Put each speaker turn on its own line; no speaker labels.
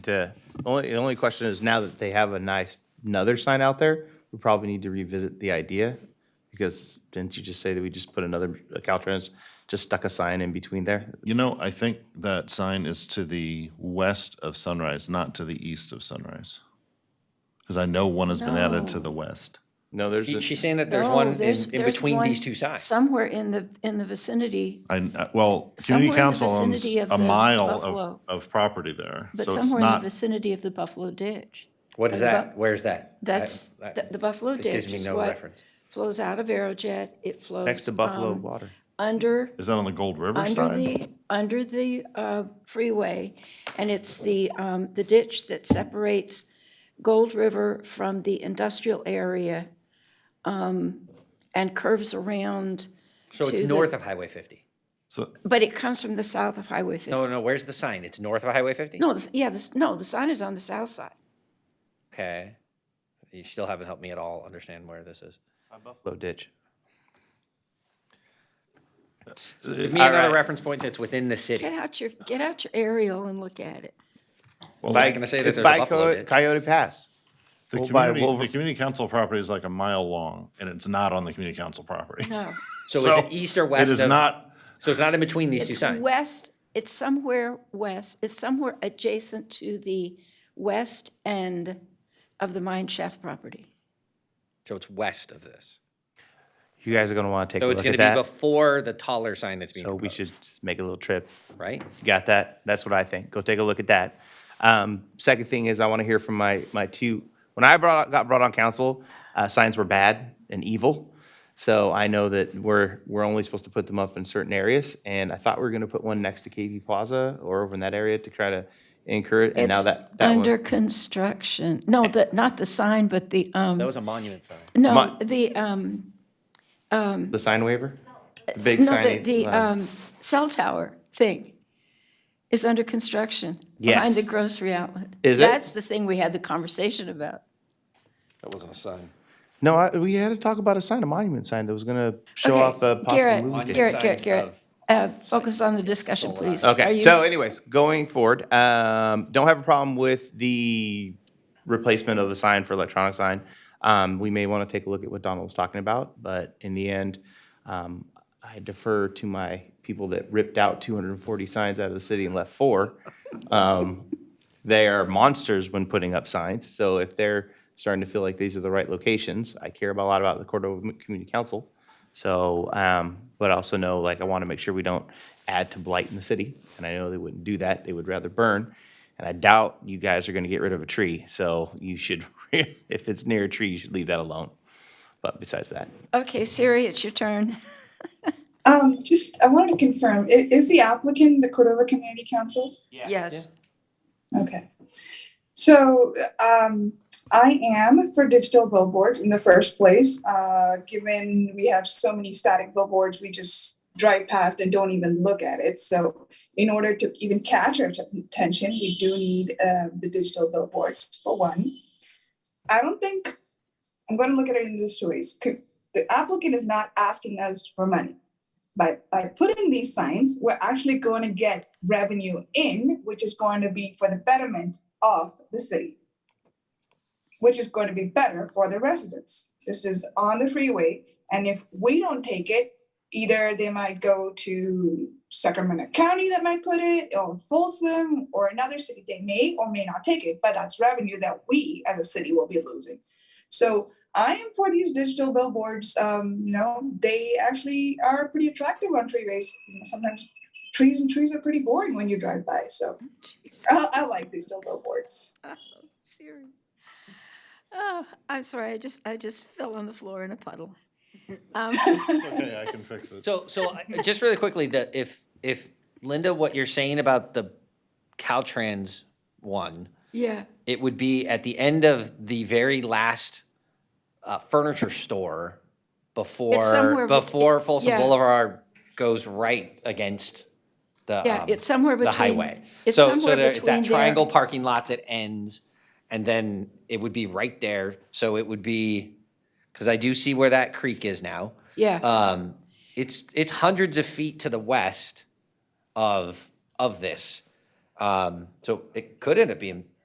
to, the only, the only question is now that they have a nice, another sign out there, we probably need to revisit the idea. Because didn't you just say that we just put another, uh, Caltrans just stuck a sign in between there?
You know, I think that sign is to the west of Sunrise, not to the east of Sunrise. Because I know one has been added to the west.
No, there's,
She-
a-
She's saying that there's
No,
one in,
there's-
in
there's
between
one
these two signs.
Somewhere in the, in the vicinity,
I, I- well,
somewhere
community
in the
council owns
vicinity of
a
the
mile of,
Buffalo.
of property there.
but
So it's
somewhere in the
not,
vicinity of the Buffalo Ditch.
What is that? Where's that? I-
That's,
I-
the the Buffalo
It gives
Ditch
me
is
no
what
reference.
flows out of Aerojet. It flows.
next to Buffalo
um,
Water.
Under,
is that on the Gold River
under
side?
the, under the uh, freeway. And it's the, um, the ditch that separates Gold River from the industrial area um, and curves around,
So
to
it's
the-
north of Highway 50.
So uh,
but it comes from the south of Highway 50.
No, no, where's the sign? It's north of Highway 50?
No, the- yeah, this, no, the sign is on the south side.
Okay. You still haven't helped me at all understand where this is.
Buffalo ditch.
Give me another reference point that's within the city.
Get out your, get out your aerial and look at it.
Well, I'm not gonna say that
It's
there's a
by
Buffalo
Coy-
Ditch.
Coyote Pass.
the
Over by
community, the
Wolver-
community council property is like a mile long and it's not on the community council property.
No.
So, is
So
it east or
It
west?
is
of,
not,
So it's not in between these two
It's
signs.
west, it's somewhere west, it's somewhere adjacent to the west end of the mine shaft property.
So it's west of this.
You guys are gonna wanna take a
So it's
look
going
at
to
that.
be before the taller sign that's being
So we
proposed,
should just make a little trip.
right?
You Got that? That's what I think. Go take a look at that. Um, second thing is I want to hear from my, my two, when I brought, got brought on council, uh, signs were bad and evil. So I know that we're, we're only supposed to put them up in certain areas. And I thought we were going to put one next to KV Plaza or over in that area to try to incur it. And now
It's
that, that
under
one,
construction. No, the, not the sign, but the, um,
That was a monument sign.
no,
Mon-
the, um,
the sign waiver? The Big
Uh, no, the,
sign.
the, um, cell tower thing is under construction. Behind
Yes.
the grocery outlet.
Is it?
That's the thing we had the conversation about.
That wasn't a sign.
No, I, we had to talk about a sign, a monument sign that was going to show
Okay,
off the possible
Garrett,
movie. theater.
Garrett, Garrett,
Signs
Garrett,
of-
uh, focus on the discussion, please. Are
Okay,
you-
so anyways, going forward, um, don't have a problem with the replacement of the sign for electronic sign. Um, we may want to take a look at what Donald was talking about, but in the end, um, I defer to my people that ripped out two hundred and forty signs out of the city and left four. Um, they are monsters when putting up signs, so if they're starting to feel like these are the right locations, I care about- a lot about the Cordova Community Council. So, um, but I also know, like, I want to make sure we don't add to blight in the city, and I know they wouldn't do that, they would rather burn. And I doubt you guys are gonna get rid of a tree, so you should, if it's near a tree, you should leave that alone. But besides that,
Okay, Siri, it's your turn.
Um, just, I wanted to confirm, i- is the applicant the Cordova Community Council?
Yes.
Okay. So, um, I am for digital billboards in the first place. Uh, given we have so many static billboards, we just drive past and don't even look at it. So in order to even catch our t- attention, we do need, uh, the digital billboards for one. I don't think, I'm gonna look at it in this ways. Could- The applicant is not asking us for money by, by putting these signs, we're actually going to get revenue in, which is going to be for the betterment of the city, which is going to be better for the residents. This is on the freeway, and if we don't take it, either they might go to Sacramento County that might put it, or Folsom, or another city. They may or may not take it, but that's revenue that we as a city will be losing. So I am for these digital billboards. Um, you know, they actually are pretty attractive on freeways. You know, sometimes trees and trees are pretty boring when you drive by. So
Jeez.
I, I like digital billboards.
Oh, Siri. Oh, I'm sorry, I just, I just fell on the floor in a puddle. Um,
it's okay, I can fix it.
So, so I- just really quickly, the, if, if Linda, what you're saying about the Caltrans one,
Yeah,
it would be at the end of the very last uh, furniture store
somewhere
before,
bet-
before Folsom
yeah.
Boulevard goes right against the,
yeah,
um,
it's somewhere
the
between.
highway.
It's
So, so
somewhere
there, it's
between
that triangle
there.
parking lot that ends, and then it would be right there. So it would be, because I do see where that creek is now.
Yeah,
Um, it's, it's hundreds of feet to the west of, of this. Um, so it could end up being